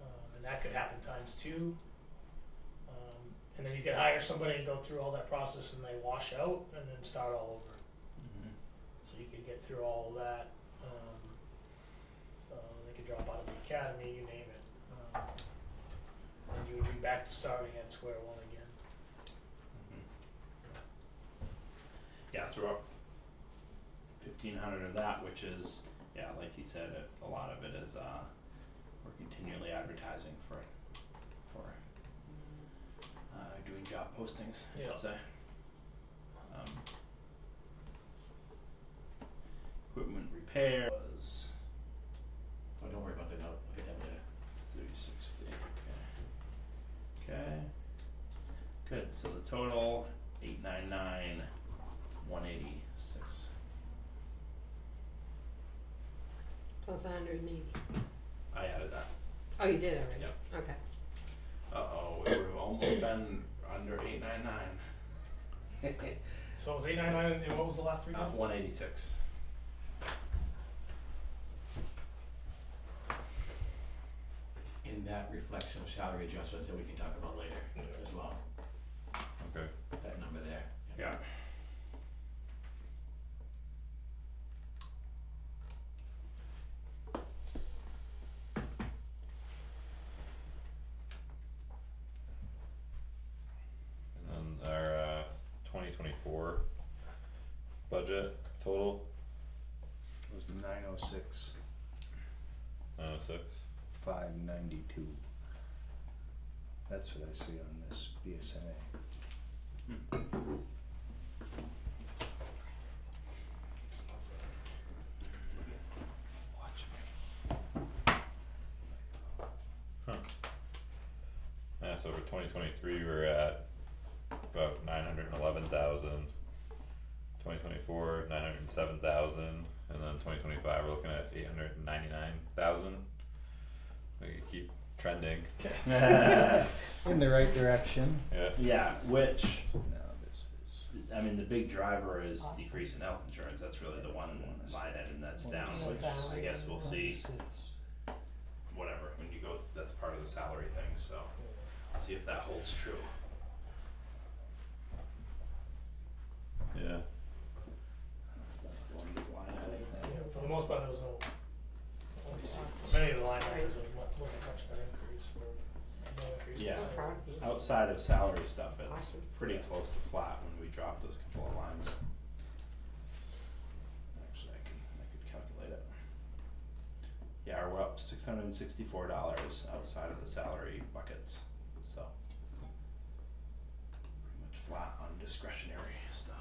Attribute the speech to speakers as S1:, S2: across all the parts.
S1: Um, and that could happen times two. Um, and then you could hire somebody and go through all that process, and they wash out, and then start all over.
S2: Mm-hmm.
S1: So you could get through all of that. Um, uh, they could drop out of the academy, you name it. Um, and you would be back to starting at square one again.
S2: Mm-hmm. Yeah, so we're up fifteen hundred of that, which is, yeah, like you said, it, a lot of it is, uh, we're continually advertising for, for, uh, doing job postings, I
S1: Yeah.
S2: should say. Um. Equipment repair was
S3: Oh, don't worry about that, I'll look at that later.
S2: three sixty, okay. Okay. Good, so the total, eight nine nine, one eighty-six.
S4: Plus a hundred and eighty.
S2: I added that.
S4: Oh, you did already?
S2: Yep.
S4: Okay.
S2: Uh-oh, it would have almost been under eight nine nine.
S1: So it was 899, and what was the last three
S2: Uh,
S1: numbers?
S2: one eighty-six.
S3: And that reflects some salary adjustments that we can talk about later as well,
S2: Okay.
S3: that number there.
S2: Yeah.
S5: And then our uh twenty twenty four budget total,
S6: It was nine oh six,
S5: nine oh six.
S6: five ninety-two. That's what I see on this BSNA. Hmm. Watch me.
S5: Yeah, so for twenty twenty three, we're at about nine hundred and eleven thousand. Twenty twenty four, nine hundred and seven thousand, and then twenty twenty five, we're looking at eight hundred and ninety nine thousand. We could keep trending,
S6: In the right direction.
S5: yeah,
S2: Yeah, which,
S6: Now this is.
S2: I mean, the big driver is
S4: Awesome.
S2: decrease in health insurance, that's really the one line item that's down,
S4: Yeah,
S2: which
S4: down.
S2: I guess we'll see,
S6: Six.
S2: whatever, when you go, that's part of the salary thing, so. See if that holds true.
S5: yeah.
S2: That's, that's the one big line item.
S1: Yeah, for the most part, there was no. Many of the line items was mu- wasn't much of an increase or no increase. in
S2: Yeah.
S4: So
S1: salary.
S4: proud of you.
S2: Outside of salary stuff, it's
S4: Awesome.
S2: pretty close to flat when we drop those couple of lines. Actually, I can, I could calculate it. Yeah, we're up six hundred and sixty-four dollars outside of the salary buckets, so. Pretty much flat on discretionary stuff.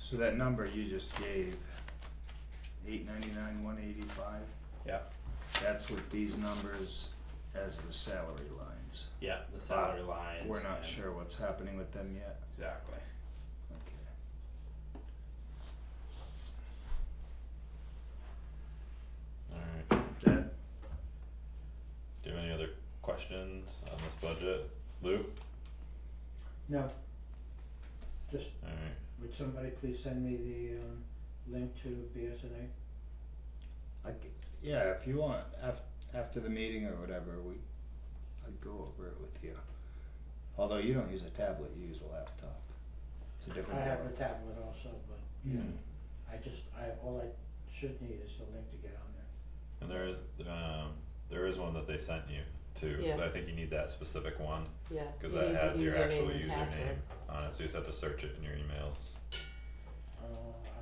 S6: So that number you just gave, eight ninety-nine, one eighty-five,
S2: Yeah,
S6: that's with these numbers as the salary lines.
S2: yeah, the salary lines.
S6: We're not
S2: and-
S6: sure what's happening with them yet.
S2: Exactly.
S6: Okay.
S5: Alright,
S6: That,
S5: do you have any other questions on this budget, Lou?
S7: No. Just,
S5: Alright,
S7: would somebody please send me the um link to BSNA?
S6: I, c- yeah, if you want, af- after the meeting or whatever, we, I'd go over it with you. Although you don't use a tablet, you use a laptop. It's a
S7: I
S6: different. Hmm.
S7: have a
S6: board.
S7: tablet also, but yeah,
S5: Mm-hmm.
S7: I just, I, all I should need is the link to get on there.
S5: and there is, um, there is one that they sent you too,
S4: Yeah.
S5: but I think you need that specific one.
S4: Yeah.
S5: Cause
S4: you
S5: that
S4: need the
S5: has your actual
S4: and
S5: username
S4: password.
S5: on it, so you just have to search it in your emails.
S7: Uh,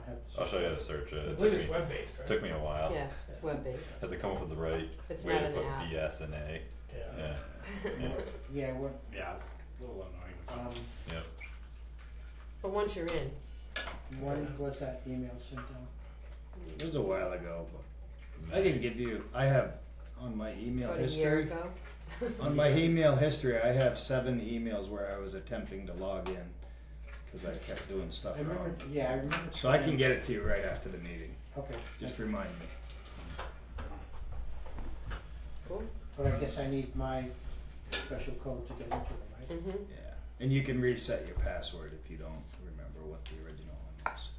S7: I have to.
S5: Oh. I'll show you how to search it.
S1: I
S5: It
S1: believe
S5: took
S1: it's
S5: me,
S1: web based, right?
S5: took me a while.
S4: Yeah, it's web-based.
S5: Had to come up with the right
S4: It's
S5: Oh. way
S4: not
S5: to
S4: an
S5: put
S4: app.
S5: BS and A.
S1: Yeah.
S5: Yeah,
S7: Yeah, what,
S2: Yeah, it's a little annoying.
S7: um,
S5: yep.
S4: But once you're in,
S7: when was that email sent out?
S6: It was a while ago, but I can give you, I have, on my email
S4: about a year
S6: history,
S4: ago.
S6: on my email history, I have seven emails where I was attempting to log in. Cause I kept doing stuff
S7: I remember,
S6: wrong.
S7: yeah, I remember.
S6: So I can
S7: seeing-
S6: get it to you right after the meeting,
S7: Okay,
S6: just remind me.
S4: Cool.
S7: but I guess I need my special code to get into it, right?
S4: Mm-hmm.
S6: Yeah, and you can reset your password if you don't remember what the original one was.